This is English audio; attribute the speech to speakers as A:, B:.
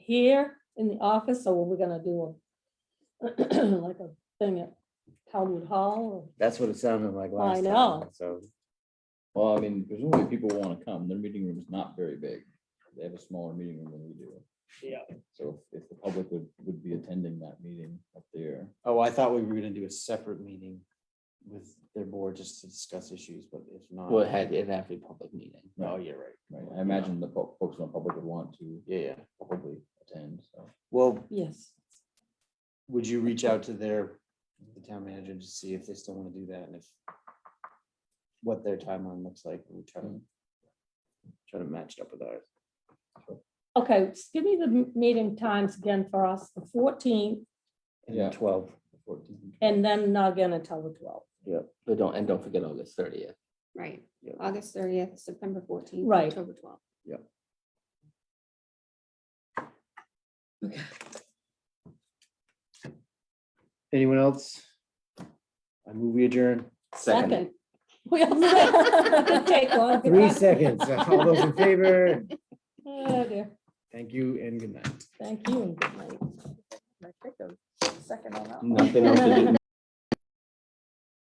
A: here in the office, or we're gonna do a like a thing at Talwood Hall
B: That's what it sounded like last time.
A: know.
B: So,
C: Well, I mean, presumably people want to come. Their meeting room is not very big. They have a smaller meeting room than we do.
D: Yeah.
C: So if if the public would, would be attending that meeting up there.
D: Oh, I thought we were gonna do a separate meeting with their board just to discuss issues, but if not.
E: Well, it had, it'd have to be a public meeting.
D: No, you're right.
C: Right, I imagine the fol- folks in the public would want to
D: Yeah, yeah.
C: probably attend, so.
D: Well,
A: or, yes.
D: would you reach out to their, the town manager to see if they still wanna do that and if what their timeline looks like, we try to try to match it up with ours.
A: Okay, just give me the m- meeting times again for us, the fourteenth,
C: Yeah.
B: and twelve,
C: 14.
A: and then not gonna tell the twelve.
E: But don't, and don't forget August thirtieth.
F: Right,
B: Yeah.
F: August thirtieth, September fourteenth.
A: Right.
F: October twelfth.
D: Anyone else? I move we adjourn.
A: Second. We all said- Take one.
G: Three seconds. All those in favor,
A: Oh, dear.
G: thank you and good night.
A: Thank you and good night.
H: I think the second on that.
E: Nothing else to do.